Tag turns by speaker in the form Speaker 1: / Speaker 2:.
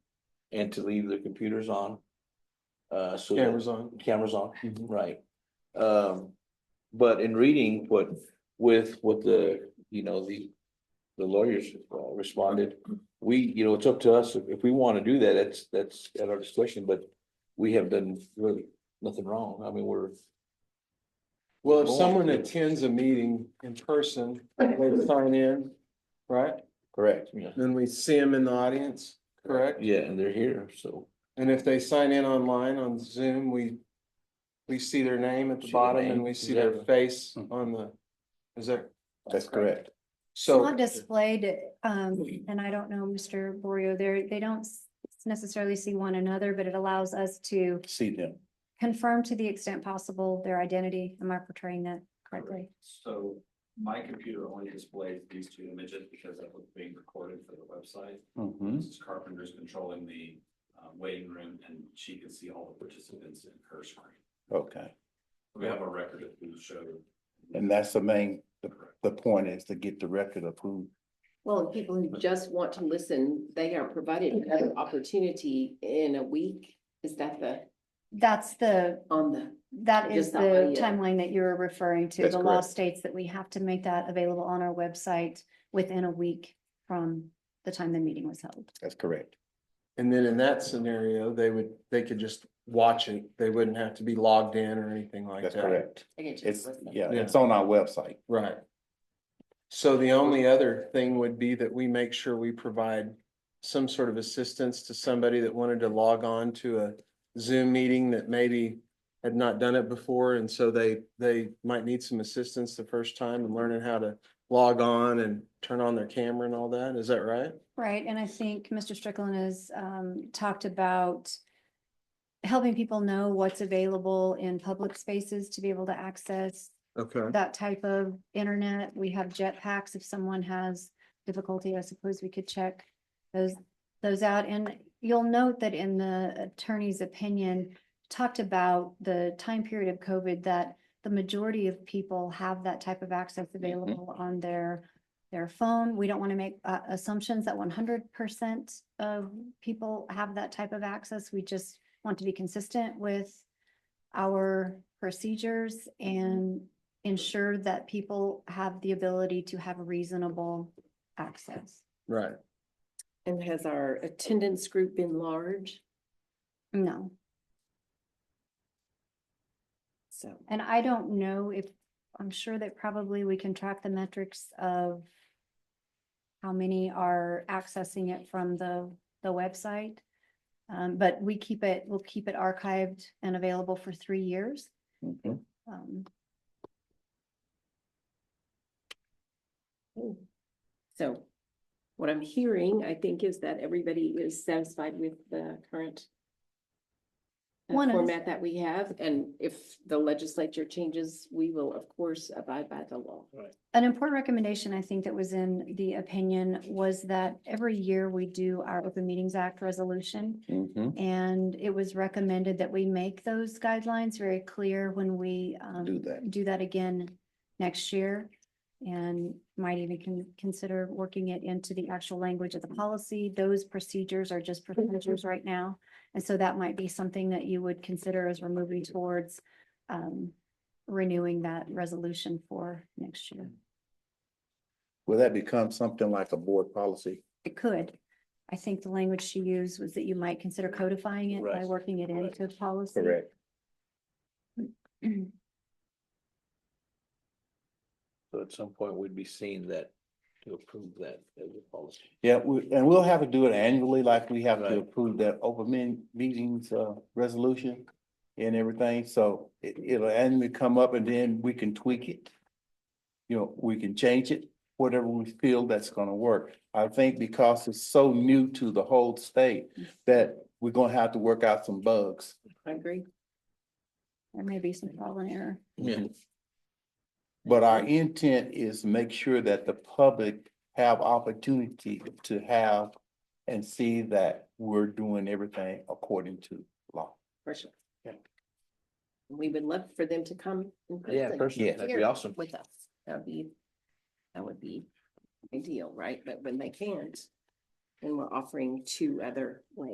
Speaker 1: and to leave the computers on. Uh, so. that-
Speaker 2: Cameras on.
Speaker 1: Cameras on,
Speaker 2: Mhm.
Speaker 1: right. Um, but in reading what, with, what the, you know, the, the lawyers uh, responded. We, you know, it's up to us, if, if we want to do that, that's, that's at our discretion, but we have done really nothing wrong, I mean, we're.
Speaker 2: Well, if
Speaker 1: Go on.
Speaker 2: someone attends a meeting in person, they sign in, right?
Speaker 1: Correct. Yeah,
Speaker 2: Then we see them in the audience, correct?
Speaker 1: yeah, and they're here, so.
Speaker 2: And if they sign in online on Zoom, we, we see their name at the
Speaker 1: See their
Speaker 2: bottom
Speaker 1: name,
Speaker 2: and we see their
Speaker 1: exactly. Hmm.
Speaker 2: face on the, is there?
Speaker 1: That's correct.
Speaker 3: It's
Speaker 2: So.
Speaker 3: not displayed, um, and I don't know, Mr. Borio, there, they don't s- necessarily see one another, but it allows us to
Speaker 1: See them.
Speaker 3: confirm to the extent possible their identity. Am I portraying that correctly?
Speaker 4: So my computer only displays these two images because that was being recorded for the website.
Speaker 1: Hmm?
Speaker 4: Mrs. Carpenter's controlling the uh, waiting room and she can see all the participants in her screen.
Speaker 5: Okay,
Speaker 4: We have a record of who showed.
Speaker 5: and that's the main, the,
Speaker 4: Correct.
Speaker 5: the point is to get the record of who,
Speaker 6: Well, if people who just want to listen, they are provided another opportunity in a week. Is that the,
Speaker 3: That's the,
Speaker 6: on the,
Speaker 3: that is
Speaker 6: Just that one,
Speaker 3: the
Speaker 6: yeah.
Speaker 3: timeline that you're referring to.
Speaker 5: That's
Speaker 3: The law
Speaker 5: correct.
Speaker 3: states that we have to make that available on our website within a week from the time the meeting was held.
Speaker 5: that's correct.
Speaker 2: And then in that scenario, they would, they could just watch it. They wouldn't have to be logged in or anything like that.
Speaker 5: That's correct.
Speaker 6: I can just
Speaker 5: It's,
Speaker 6: listen.
Speaker 5: yeah,
Speaker 2: Yeah.
Speaker 5: it's on our website.
Speaker 2: Right. So the only other thing would be that we make sure we provide some sort of assistance to somebody that wanted to log on to a Zoom meeting that maybe had not done it before, and so they, they might need some assistance the first time in learning how to log on and turn on their camera and all that. Is that right?
Speaker 3: Right, and I think Mr. Strickland has um talked about helping people know what's available in public spaces to be able to access
Speaker 2: Okay.
Speaker 3: that type of internet. We have jetpacks if someone has difficulty, I suppose we could check those those out. And you'll note that in the attorney's opinion, talked about the time period of COVID that the majority of people have that type of access available on their their phone. We don't want to make uh, assumptions that one hundred percent of people have that type of access. We just want to be consistent with our procedures and ensure that people have the ability to have reasonable access.
Speaker 2: Right.
Speaker 6: And has our attendance group been large?
Speaker 3: No,
Speaker 6: So.
Speaker 3: and I don't know if, I'm sure that probably we can track the metrics of how many are accessing it from the, the website. Um, but we keep it, we'll keep it archived and available for three years.
Speaker 5: Mhm.
Speaker 3: Um,
Speaker 6: Hmm. So what I'm hearing, I think, is that everybody is satisfied with the current uh,
Speaker 3: One is-
Speaker 6: format that we have, and if the legislature changes, we will, of course, abide by the law.
Speaker 3: An important recommendation, I think, that was in the opinion was that every year we do our Open Meetings Act resolution.
Speaker 5: Mhm.
Speaker 3: And it was recommended that we make those guidelines very clear when we um,
Speaker 5: Do that.
Speaker 3: do that again next year. And might even con- consider working it into the actual language of the policy. Those procedures are just
Speaker 1: Mm-hmm.
Speaker 3: procedures right now. And so that might be something that you would consider as we're moving towards um, renewing that resolution for next year.
Speaker 5: Will that become something like a board policy?
Speaker 3: It could. I think the language she used was that you might consider codifying it by
Speaker 1: Right.
Speaker 3: working it
Speaker 1: Correct.
Speaker 3: into policy. Mm-hmm.
Speaker 1: So at some point, we'd be seeing that, to approve that as a policy.
Speaker 5: Yeah, we, and we'll have to do it annually, like we have
Speaker 1: Right.
Speaker 5: to approve that open men, meetings, uh, resolution and everything, so it, it'll annually come up and then we can tweak it. You know, we can change it, whatever we feel that's gonna work. I think because it's so new to the whole state that we're gonna have to work out some bugs.
Speaker 6: I agree.
Speaker 3: There may be some trial and error.
Speaker 1: Yeah.
Speaker 5: But our intent is make sure that the public have opportunity to have and see that we're doing everything according to law.
Speaker 6: For sure.
Speaker 5: Yeah.
Speaker 6: We would love for them to come. in
Speaker 1: Yeah,
Speaker 6: person
Speaker 1: personally,
Speaker 5: Yeah.
Speaker 1: that'd be
Speaker 6: here
Speaker 1: awesome.
Speaker 6: With us, that'd be, that would be ideal, right? But when they can't, then we're offering two other ways.